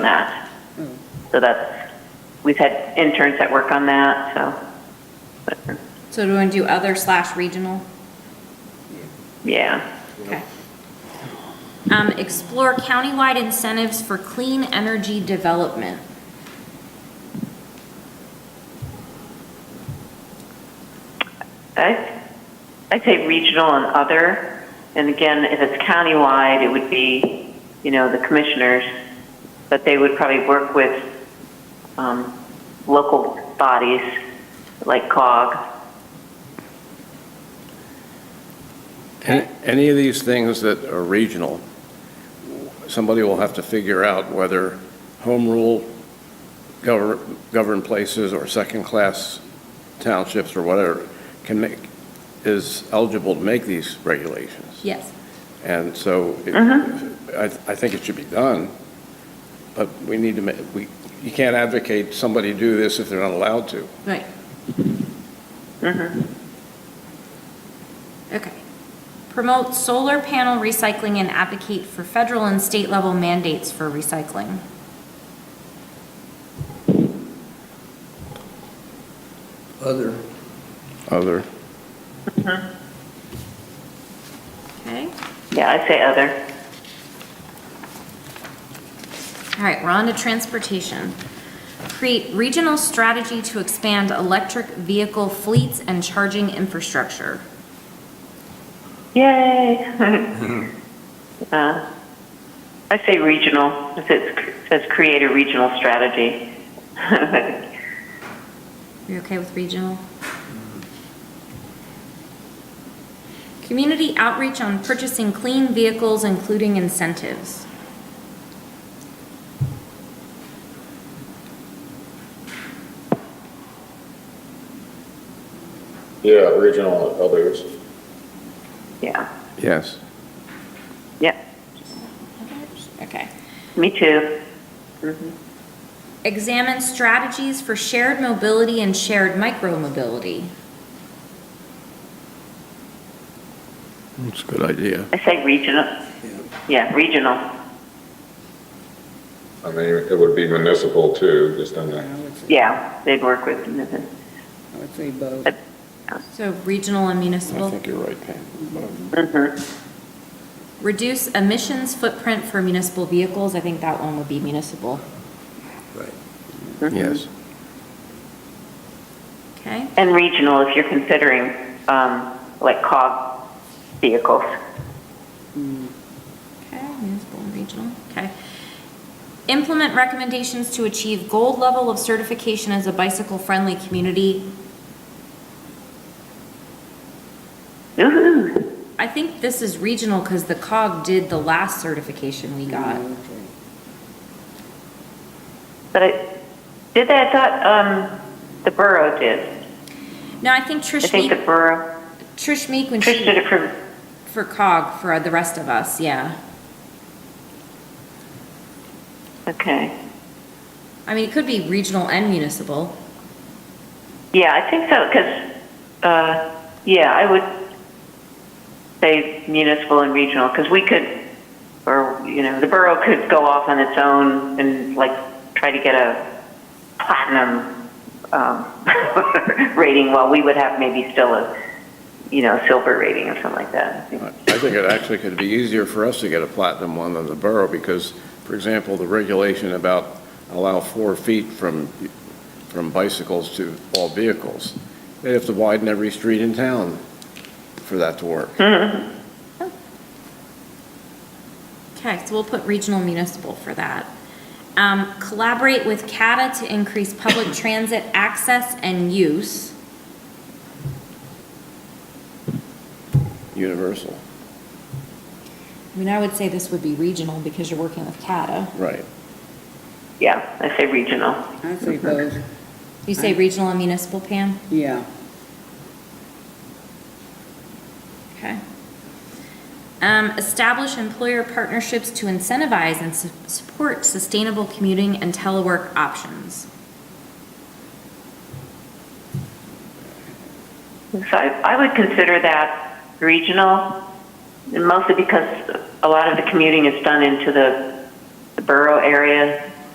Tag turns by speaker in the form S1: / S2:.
S1: that. So that's, we've had interns that work on that, so, but,
S2: So do we want to do other slash regional?
S1: yeah.
S2: Okay. Um, explore countywide incentives for clean energy development.
S1: I, I'd say regional and other, and again, if it's countywide, it would be, you know, the commissioners, but they would probably work with, um, local bodies like COG.
S3: Any any of these things that are regional, somebody will have to figure out whether home rule govern governed places or second-class townships or whatever can make, is eligible to make these regulations.
S2: Yes.
S3: And so it- I I think it should be done, but we need to, ma- we you can't advocate somebody do this if they're not allowed to.
S2: Right. Uh-huh. Okay. Promote solar panel recycling and advocate for federal and state level mandates for recycling.
S4: Other,
S3: Other.
S2: Okay?
S1: Yeah, I'd say other.
S2: All right, we're on to transportation. Create regional strategy to expand electric vehicle fleets and charging infrastructure.
S1: Yay! Uh, I say regional, it says- it says create a regional strategy.
S2: Are you okay with regional? Community outreach on purchasing clean vehicles, including incentives.
S5: Yeah, regional and others.
S1: Yeah,
S3: Yes.
S1: yeah,
S2: Okay.
S1: me too. Mm-hmm.
S2: Examine strategies for shared mobility and shared micromobility.
S3: That's a good idea.
S1: I say regional, yeah, regional,
S5: I mean, it would be municipal too, just on
S4: I
S5: the,
S4: would say,
S1: yeah, they'd work with, Mm-hmm.
S4: I would say both.
S2: So regional and
S3: I
S2: municipal.
S3: think you're right, Pam.
S1: Mhm.
S2: Reduce emissions footprint for municipal vehicles. I think that one would be municipal.
S4: Right.
S1: Mm-hmm.
S3: Yes.
S2: Okay?
S1: and regional if you're considering, um, like cog vehicles.
S2: Okay, municipal and regional, okay. Implement recommendations to achieve gold level of certification as a bicycle-friendly community.
S1: Ooh,
S2: I think this is regional because the COG did the last certification we
S1: Mm.
S2: got.
S4: Okay.
S1: but I, did that, I thought, um, the borough did.
S2: No, I think
S1: I
S2: Trish
S1: think the
S2: Meek,
S1: borough,
S2: Trish Meek when
S1: Trish did
S2: she,
S1: it for,
S2: for COG, for the rest of us, yeah.
S1: okay.
S2: I mean, it could be regional and municipal.
S1: Yeah, I think so, because, uh, yeah, I would say municipal and regional, because we could, or, you know, the borough could go off on its own and like try to get a platinum, um, rating, while we would have maybe still a, you know, silver rating or something like that.
S3: I think it actually could be easier for us to get a platinum one than the borough, because, for example, the regulation about allow four feet from, from bicycles to all vehicles, they'd have to widen every street in town for that to work.
S2: Okay, so we'll put regional municipal for that. Um, collaborate with CATA to increase public transit access and use.
S3: Universal,
S2: I mean, I would say this would be regional because you're working with CATA.
S3: right.
S1: Yeah, I say regional.
S4: I'd say both,
S2: You say regional and municipal, Pam?
S4: yeah.
S2: Okay. Um, establish employer partnerships to incentivize and su- support sustainable commuting and telework options.
S1: So I, I would consider that regional, and mostly because a lot of the commuting is done into the, the borough area,